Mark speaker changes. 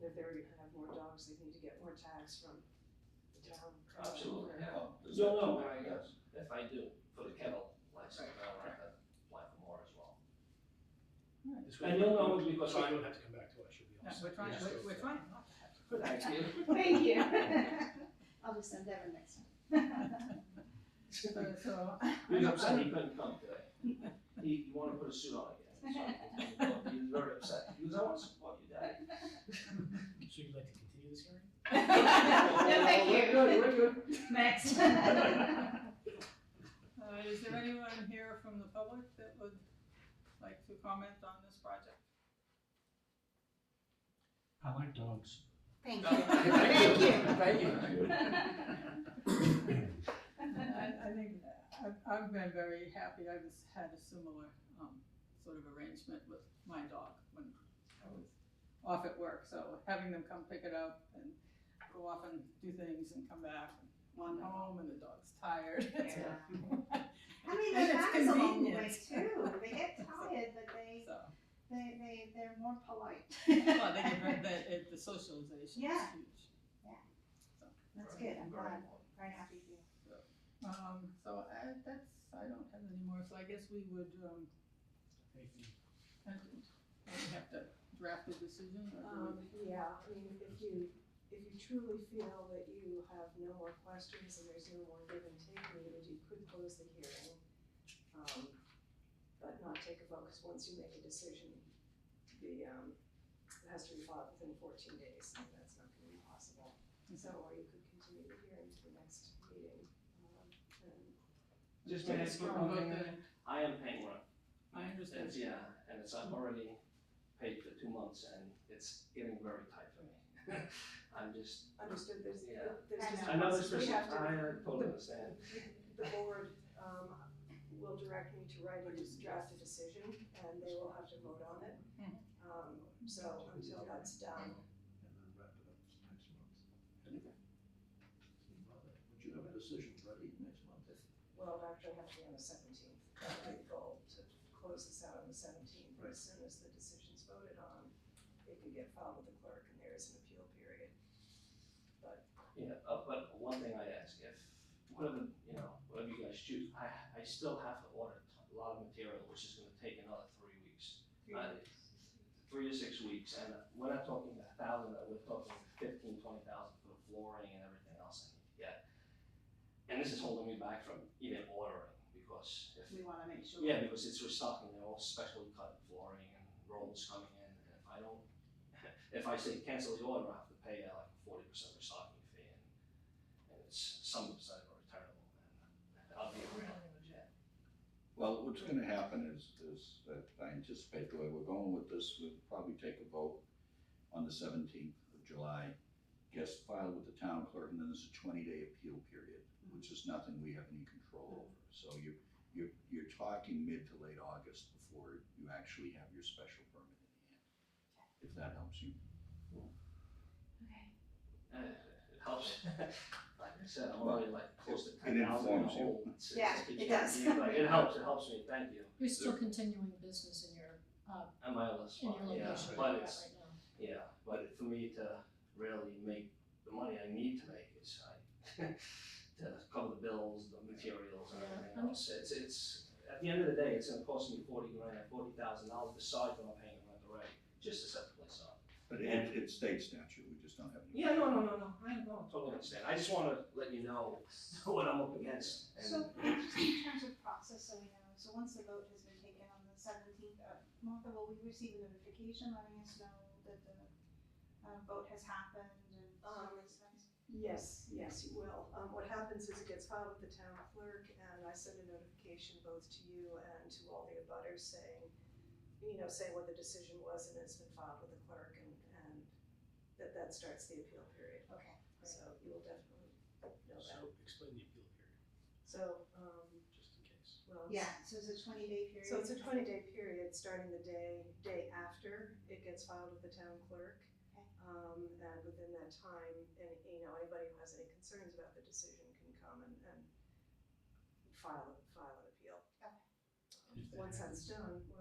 Speaker 1: if they're gonna have more dogs, they need to get more tags from the town.
Speaker 2: Absolutely, yeah.
Speaker 3: Oh, does
Speaker 2: No, no,
Speaker 3: that-
Speaker 2: I, uh,
Speaker 3: Yes.
Speaker 2: if I do, for the kennel uh, license, I'll have to apply for more as well.
Speaker 4: This
Speaker 2: And you'll know it because
Speaker 4: So
Speaker 2: I-
Speaker 4: you don't have to come back to us, you'll be all
Speaker 5: No,
Speaker 4: set.
Speaker 5: we're trying,
Speaker 2: Yeah.
Speaker 5: we're, we're trying not to have. to.
Speaker 2: Thank you.
Speaker 6: Thank you. I'll just endeavor next time.
Speaker 5: So- So,
Speaker 2: He's upset he couldn't come today. He, he wanted to put a suit on again, so he couldn't come. he was very upset. He was, I want to support you, Daddy.
Speaker 4: So you'd like to continue this hearing?
Speaker 6: No, thank
Speaker 2: We're good, we're good.
Speaker 6: you. Next.
Speaker 5: uh, is there anyone here from the public that would like to comment on this project?
Speaker 4: I like dogs.
Speaker 6: Thank you.
Speaker 2: Thank you.
Speaker 6: Thank you.
Speaker 2: Thank you.
Speaker 5: I, I think, I've, I've been very happy, I was, had a similar, um, sort of arrangement with my dog when I was off at work, so having them come pick it up and go off and do things and come back, and run home and the dog's tired.
Speaker 6: Yeah. I mean,
Speaker 5: And
Speaker 6: the
Speaker 5: it's
Speaker 6: dogs along the way
Speaker 5: convenient.
Speaker 6: too, they get tired, but they,
Speaker 5: So,
Speaker 6: they, they, they're more polite.
Speaker 5: well, they get, very- the, it- the socialization is
Speaker 6: Yeah.
Speaker 5: huge.
Speaker 6: That's good,
Speaker 2: Very
Speaker 6: I'm glad,
Speaker 2: important.
Speaker 6: very happy for you.
Speaker 5: Um, so I, that's, I don't have any more, so I guess we would, um,
Speaker 4: Anything?
Speaker 5: I think we have to draft a decision or do we-
Speaker 1: Um, yeah, I mean, if you, if you truly feel that you have no more questions and there's no more give and take needed, you could close the hearing. um, But not take a vote, because once you make a decision, the, um, it has to be filed within fourteen days, and that's not gonna be possible. So, or you could continue the hearing to the next meeting, um, and.
Speaker 2: Just may I ask one
Speaker 5: About
Speaker 2: thing?
Speaker 5: the-
Speaker 2: I am paying rent.
Speaker 5: I understand.
Speaker 2: It's- Yeah, and it's, I've already paid for two months and it's getting very tight for me. I'm just,
Speaker 1: Understood, there's,
Speaker 2: Yeah.
Speaker 1: there's just.
Speaker 2: I know this
Speaker 1: we
Speaker 2: person,
Speaker 1: have to-
Speaker 2: I uh, totally understand.
Speaker 1: The board um, will direct me to write a draft a decision, and they will have to vote on it.
Speaker 7: Hmm.
Speaker 1: Um, So until that's done,
Speaker 3: And then wrap it up next month. Would you have a decision ready next month?
Speaker 1: we'll actually have to be on the seventeenth. That would be the goal, to close this out on the seventeenth. As soon as the decision's voted on, it can get filed with the clerk, and there is an appeal period.
Speaker 2: Yeah, uh, but one thing I ask, if, whatever, you know, whatever you guys choose, I, I still have to order a lot of material, which is gonna take another three weeks. Uh, Three to six weeks, and we're not talking a thousand, uh, we're talking fifteen, twenty thousand for the flooring and everything else I need to get. And this is holding me back from even ordering, because if
Speaker 5: We wanna make sure.
Speaker 2: Yeah, because it's restocking, they're all specially cut flooring and rolls coming in, and if I don't, if I say cancel the order, I have to pay uh, like a forty percent restocking fee, and, and it's some of it's not even returnable, and I'll be around in the jet.
Speaker 3: Well, what's gonna happen is, is that I anticipate the way we're going with this, we'll probably take a vote on the seventeenth of July, gets filed with the town clerk, and then there's a twenty-day appeal period, which is nothing we have any control over. So you, you're, you're talking mid to late August before you actually have your special permit in hand, if that helps you.
Speaker 6: Okay.
Speaker 2: Uh, It helps, like I said, I'm already like close to
Speaker 3: It
Speaker 2: ten thousand in the
Speaker 3: informs you.
Speaker 2: hole. It's- it's-
Speaker 6: Yeah,
Speaker 2: it's-
Speaker 6: it
Speaker 2: it's-
Speaker 6: does.
Speaker 2: like, It helps, it helps me, thank you,
Speaker 7: You're still continuing business in your, uh,
Speaker 2: and my
Speaker 7: in
Speaker 2: other
Speaker 7: your
Speaker 2: spot, yeah,
Speaker 7: location
Speaker 2: but
Speaker 7: you're at
Speaker 2: it's,
Speaker 7: right now.
Speaker 2: Yeah, but for me to really make the money I need to make is I, to cover the bills, the materials and everything
Speaker 7: Yeah, I'm-
Speaker 2: else. It's, it's, at the end of the day, it's gonna cost me forty grand, forty thousand dollars besides what I'm paying rent already, just to set the place up.
Speaker 3: But it, it's state statute, we just don't have any.
Speaker 2: Yeah, no, no, no, no, I no, I totally understand. I just wanna let you know what I'm up against
Speaker 6: So,
Speaker 2: and
Speaker 6: just in terms of process, so we know, so once the vote has been taken on the seventeenth, uh, Martha, will we receive a notification letting us know that the, uh, vote has happened and
Speaker 1: Um,
Speaker 6: all these things?
Speaker 1: Yes, yes, you will. Um, what happens is it gets filed with the town clerk and I send a notification both to you and to all the abutters saying, you know, saying what the decision was and it's been filed with the clerk and, and that, that starts the appeal period.
Speaker 6: Okay, great.
Speaker 1: So you will definitely know that.
Speaker 4: So explain the appeal period,
Speaker 1: So, um,
Speaker 4: just in case.
Speaker 1: well. it's-
Speaker 6: Yeah, so it's a twenty day period.
Speaker 1: So it's a twenty day period, starting the day, day after it gets filed with the town clerk.
Speaker 6: Okay.
Speaker 1: Um, and within that time, any, you know, anybody who has any concerns about the decision can come and, and file, file an appeal.
Speaker 6: Okay.
Speaker 1: Once that's done,